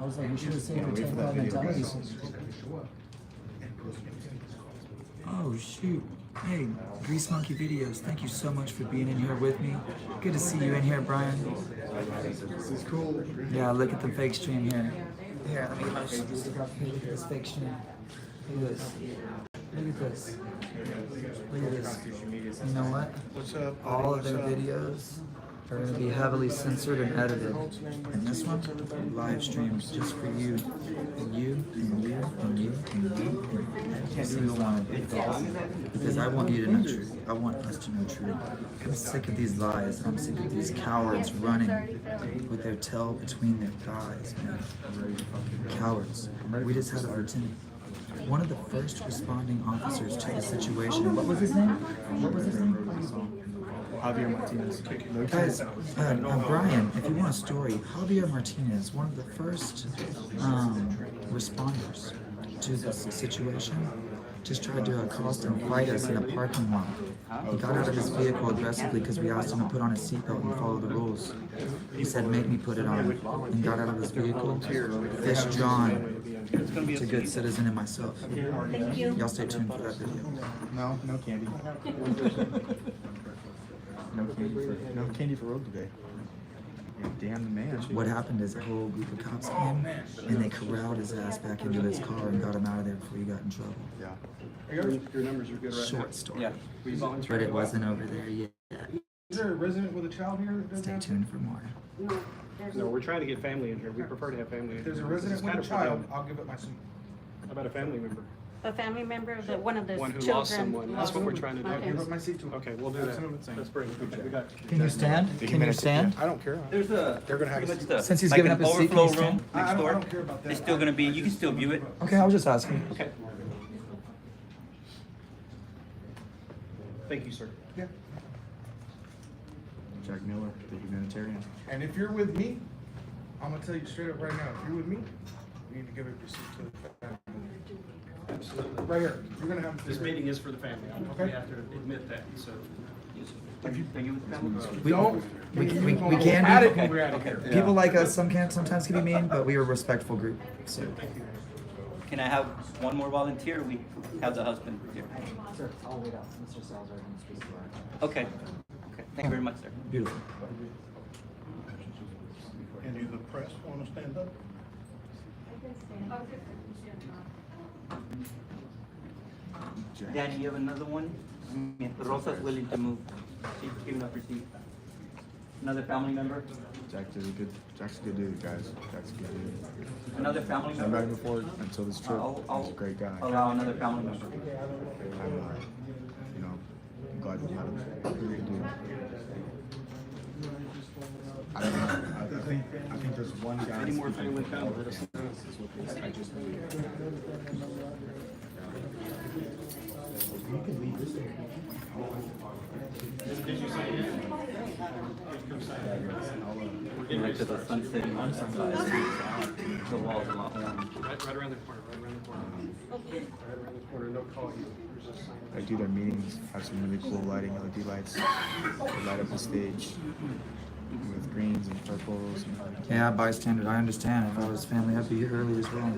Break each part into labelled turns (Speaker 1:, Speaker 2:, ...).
Speaker 1: I was like, we should have saved our ten thousand dollars. Oh, shoot. Hey, Grease Monkey Videos, thank you so much for being in here with me. Good to see you in here, Brian.
Speaker 2: This is cool.
Speaker 1: Yeah, look at the fake stream here. Here, let me get my stick up here. Look at this fake stream. Look at this. Look at this. Look at this. You know what?
Speaker 2: What's up?
Speaker 1: All of their videos are going to be heavily censored and edited. And this one, live streams just for you. And you, and you, and you, and you, and every single one. Because I want you to know truth. I want us to know truth. I'm sick of these lies. I'm sick of these cowards running with their tail between their thighs, man. Cowards. We just had a lieutenant. One of the first responding officers to the situation. What was his name? What was his name?
Speaker 2: Javier Martinez.
Speaker 1: Guys, uh, uh, Brian, if you want a story, Javier Martinez, one of the first um, responders to this situation, just tried to accost and fight us in a parking lot. He got out of his vehicle aggressively because we asked him to put on his seatbelt and follow the rules. He said, "Make me put it on," and got out of his vehicle. Fish John, to good citizen and myself.
Speaker 3: Thank you.
Speaker 1: Y'all stay tuned for that video.
Speaker 2: No, no candy. No candy for, no candy for road today. Damn the man.
Speaker 1: What happened is a whole group of cops
Speaker 4: Oh,
Speaker 1: came and they corralled his ass back into his car and got him out of there before he got in trouble.
Speaker 2: Yeah.
Speaker 5: Your, your numbers are good right now.
Speaker 1: Short story.
Speaker 5: We volunteer.
Speaker 1: But it wasn't over there yet.
Speaker 5: Is there a resident with a child here that does
Speaker 1: Stay
Speaker 5: that?
Speaker 1: tuned for more.
Speaker 6: No, we're trying to get family in here. We prefer to have family. in
Speaker 5: If there's a
Speaker 6: here. This
Speaker 5: resident
Speaker 6: is
Speaker 5: with a
Speaker 6: kind of
Speaker 5: child,
Speaker 6: redundant.
Speaker 5: I'll give it my seat.
Speaker 6: How about a family member?
Speaker 7: A family member, of the, one of the
Speaker 6: One who
Speaker 7: children.
Speaker 6: lost someone. That's what we're trying to
Speaker 5: I'll
Speaker 6: do.
Speaker 5: give up my seat to him.
Speaker 6: Okay, we'll do that.
Speaker 5: Absolutely.
Speaker 6: Let's bring, okay, we got,
Speaker 1: Can you stand? Can you stand?
Speaker 2: I don't care.
Speaker 8: There's a.
Speaker 5: They're gonna have
Speaker 8: pretty
Speaker 5: a-
Speaker 8: much the-
Speaker 1: Since he's
Speaker 8: like
Speaker 1: given
Speaker 8: an
Speaker 1: up his seat, can
Speaker 8: Overflow
Speaker 1: you stand?
Speaker 8: room
Speaker 5: I- I
Speaker 8: next
Speaker 5: don't- I
Speaker 8: door.
Speaker 5: don't care about that.
Speaker 8: It's still gonna be,
Speaker 5: I- I
Speaker 8: you can
Speaker 5: just
Speaker 8: still
Speaker 5: don't
Speaker 8: view
Speaker 5: give
Speaker 8: it.
Speaker 5: up.
Speaker 1: Okay, I was just asking.
Speaker 8: Okay.
Speaker 6: thank you, sir.
Speaker 5: Yeah.
Speaker 2: Jack Miller, the humanitarian.
Speaker 5: And if you're with me, I'm gonna tell you straight up right now, if you're with me, you need to give up your seat to the family.
Speaker 6: Absolutely.
Speaker 5: Right here, you're gonna have.
Speaker 6: This meeting is for the family.
Speaker 5: Okay.
Speaker 6: We have to admit that, so.
Speaker 8: Are you, are you with them?
Speaker 1: We,
Speaker 5: Don't.
Speaker 1: we,
Speaker 5: you
Speaker 1: we, we
Speaker 5: don't
Speaker 1: can
Speaker 5: add
Speaker 1: be.
Speaker 5: it when we're out of here.
Speaker 1: People like us some can sometimes can be mean, but we are a respectful group. So
Speaker 8: Can I have one more volunteer? We have the husband here.
Speaker 4: Sir, I'll wait out. Mr. Salzar can speak to our.
Speaker 8: Okay, okay, thank you very much, sir.
Speaker 1: beautiful.
Speaker 9: Any of the press want to stand up?
Speaker 8: Danny, you have another one? I mean, Rosa's willing to move. She's giving up her seat. Another family member,
Speaker 2: Jack did a good, Jack's a good dude, guys. Jack's a good dude.
Speaker 8: another family
Speaker 2: I've met him
Speaker 8: member.
Speaker 2: before until this trip.
Speaker 8: I'll,
Speaker 2: He's a
Speaker 8: I'll
Speaker 2: great guy. I'm,
Speaker 8: allow another family member.
Speaker 2: uh, you know, I'm glad we had him. He's a great dude. I don't know. I- I think, I think there's one guy.
Speaker 6: Any more
Speaker 2: speaking
Speaker 6: family
Speaker 2: for
Speaker 6: come,
Speaker 2: all
Speaker 6: let us
Speaker 2: the families is what they say. I just believe it.
Speaker 6: Did you sign in? Come sign in. We're getting ready
Speaker 8: Right
Speaker 6: to
Speaker 8: to the
Speaker 6: start.
Speaker 8: sunset, on sunrise. The walls are long.
Speaker 6: Right, right around the corner, right around the corner. Right around the corner, they'll call you. There's a sign.
Speaker 2: I do their meetings, have some really cool lighting, LED lights. They light up the stage with greens and purples. And
Speaker 1: Yeah, bystander, I understand. If I was family, I'd be here early as well.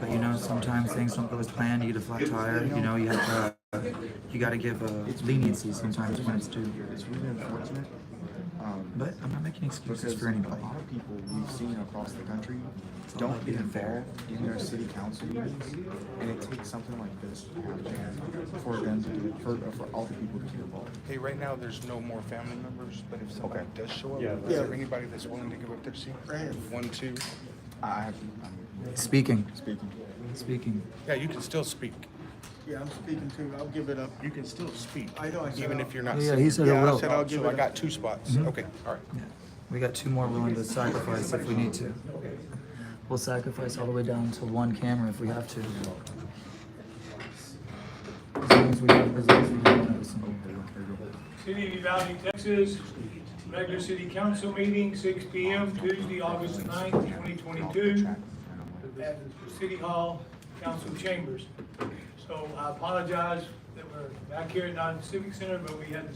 Speaker 1: But you know, sometimes things don't go as planned. You get a flat tire. You know, you have to, uh, you got to give uh, leniency sometimes when it's due.
Speaker 2: it's really unfortunate. Um,
Speaker 1: But I'm not making excuses
Speaker 2: because
Speaker 1: for
Speaker 2: a
Speaker 1: anybody.
Speaker 2: lot of people we've seen across the country
Speaker 1: all
Speaker 2: don't
Speaker 1: about
Speaker 2: get
Speaker 1: being fair.
Speaker 2: involved in their city council meetings, and it takes something like this to happen for them to do for, for all the people to get involved.
Speaker 5: Hey, right now, there's no more family members, but if somebody
Speaker 2: Okay.
Speaker 5: does show up,
Speaker 6: Yeah.
Speaker 5: is there anybody that's willing to give up their seat? One, two.
Speaker 2: I have, I'm
Speaker 1: Speaking,
Speaker 2: speaking.
Speaker 1: speaking.
Speaker 5: Yeah, you can still speak,
Speaker 9: Yeah, I'm speaking too. I'll give it up. You can still speak. I know, I said
Speaker 5: even
Speaker 9: I'll-
Speaker 5: if you're not.
Speaker 1: Yeah,
Speaker 5: sitting.
Speaker 1: he said it
Speaker 5: Yeah, I
Speaker 1: will.
Speaker 5: said I'll give it. Mm-hmm. I got two spots. Okay, all right.
Speaker 1: Yeah. We got two more willing to sacrifice if we need to. We'll sacrifice all the way down to one camera if we have to. As long as we have, as long as we have one every single day.
Speaker 10: City of Uvalde, Texas, regular city council meeting, six P M, Tuesday, August ninth, twenty twenty-two, at City Hall, council chambers. So I apologize that we're back here at non-civic center, but we had to